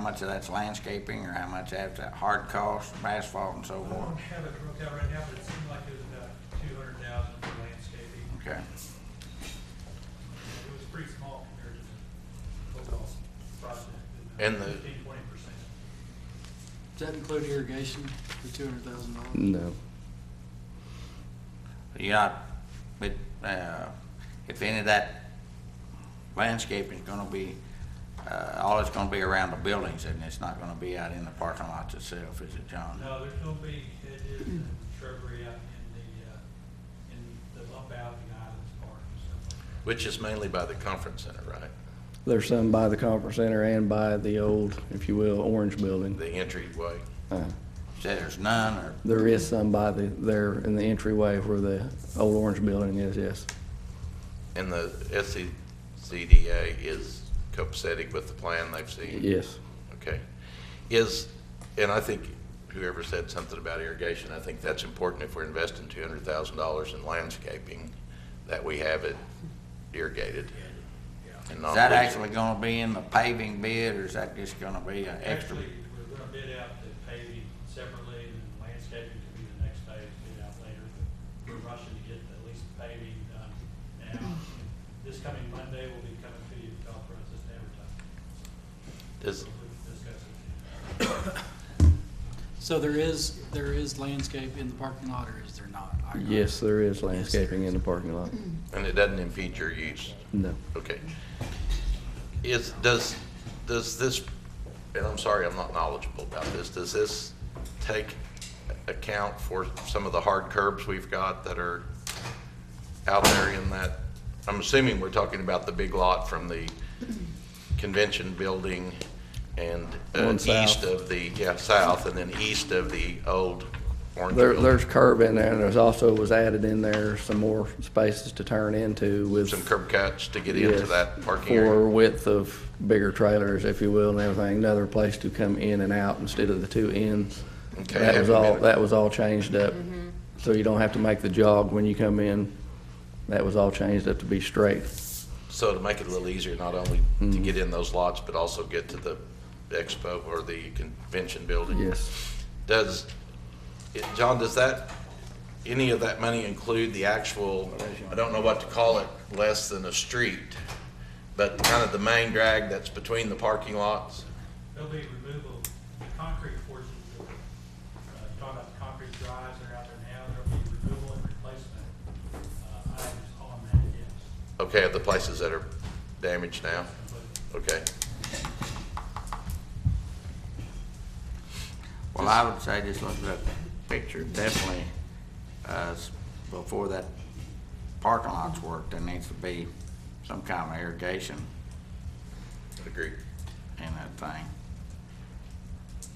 much of that's landscaping or how much that's that hard cost, asphalt and so I forth? don't have it broke out right now, but it seemed like it was about two hundred thousand for landscaping. Okay, It was pretty small compared to the overall project. And the- Fifteen, twenty percent. Does that include irrigation, the two hundred thousand dollars? No. you not, but, uh, if any of that landscaping's gonna be, uh, all it's gonna be around the buildings and it's not gonna be out in the parking lots itself, is it, John? No, there's gonna be hedges and shrubbery out in the, uh, in the bump out the islands park and stuff like that. Which is mainly by the conference center, right? There's some by the conference center and by the old, if you will, orange building. The entryway. Uh, Say there's none or There is some by the, there in the entryway where the old orange building is, yes. And the E SCDA is copacetic with the plan they've seen? Yes. Okay. Is, and I think whoever said something about irrigation, I think that's important if we're investing two hundred thousand dollars in landscaping, that we have it irrigated. and not Is that leaching. actually gonna be in the paving bid, or is that just gonna be an extra? Actually, we're gonna bid out the paving separately, and then landscaping could be the next phase, bid out later. but We're rushing to get at least the paving done now. This coming Monday, we'll be coming to you to talk process and advertise. Does, We'll discuss it. So there is, there is landscape in the parking lot, or is there not? I- I- Yes, there is landscaping in the parking lot. and it doesn't impede your use? No. Okay. Is, does, does this, and I'm sorry, I'm not knowledgeable about this, does this take account for some of the hard curbs we've got that are out there in that? I'm assuming we're talking about the big lot from the convention building and uh, One south. east of the, yeah, south, and then east of the old orange There, building. there's curb in there, and there's also was added in there some more spaces to turn into with. Some curb cuts to get into Yes, that parking area. For width of bigger trailers, if you will, and everything, another place to come in and out instead of the two ends. Okay, I That was haven't all, been- that was all changed up, so you don't have to make the jog when you come in. That was all changed up to be straight. So to make it a little easier, not only to get in those lots, but also get to the expo or the convention building? Yes, Does, it- John, does that, any of that money include the actual, I don't know what to call it, less than a street, but kind of the main drag that's between the parking lots? There'll be removal, the concrete portions of, uh, talking about the concrete drives that are out there now, there'll be removal and replacement, uh, items on that, yes. Okay, of the places that are damaged now? Okay. Well, I would say just look at the picture, definitely, uh, s- before that parking lot's worked, there needs to be some kind of irrigation Agree. in that thing.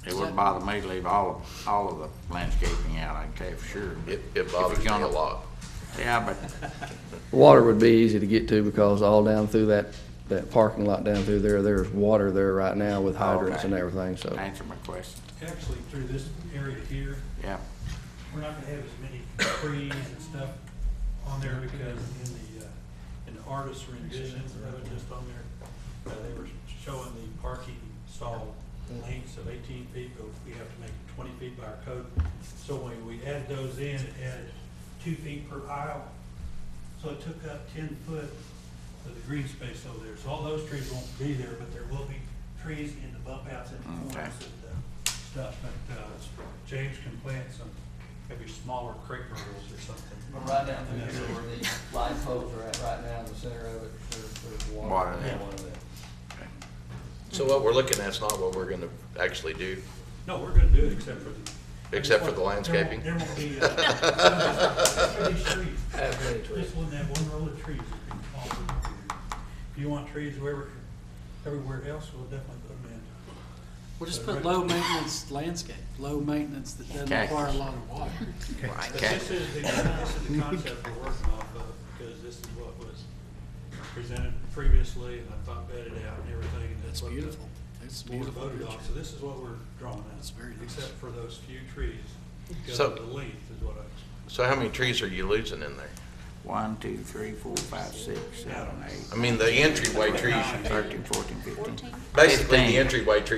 It wouldn't bother me to leave all, all of the landscaping out, I can tell you for sure. It, it bothers me a gonna- lot. Yeah, but water would be easy to get to because all down through that, that parking lot down through there, there's water there right now Oh, with hydrants and Okay. everything, so. answer my question, Actually, through this area here, yeah. we're not gonna have as many trees and stuff on there because in the, uh, in the artist renditions, that was just on there, uh, they were showing the parking stall lengths of eighteen feet, but we have to make it twenty feet by our code. So when we added those in, it added two feet per aisle, so it took up ten foot of the green space over there. So all those trees won't be there, but there will be trees in the bump outs and the Okay. corners and uh, stuff. But uh, James can plant some, maybe smaller crepe myrtles or something. But right down through here where the light poles are at right now in the center of it, there's, there's Water, water. in yeah. one of them. So what we're looking at is not what we're gonna actually do. No, we're gonna do it except for the. Except for the landscaping? There won't be, uh, for these trees. Halfway to it. Just one, that one roll of trees. that can fall over. If you want trees wherever, everywhere else, we'll definitely put them in. We'll just put low maintenance landscape, low maintenance that doesn't require a lot of water. But this is the, this is the concept we're working off of, because this is what was presented previously, and I thought vetted out and everything, and that's That's what the beautiful. It's a board beautiful voted on. So picture. this is what we're drawing out. That's very nice. Except for those few trees, because So- of the length is what I explained. So how many trees are you losing in there? One, two, three, four, five, six, seven, eight, I mean, the entryway trees, thirteen, fourteen, fifteen. basically Fifteen. the entryway trees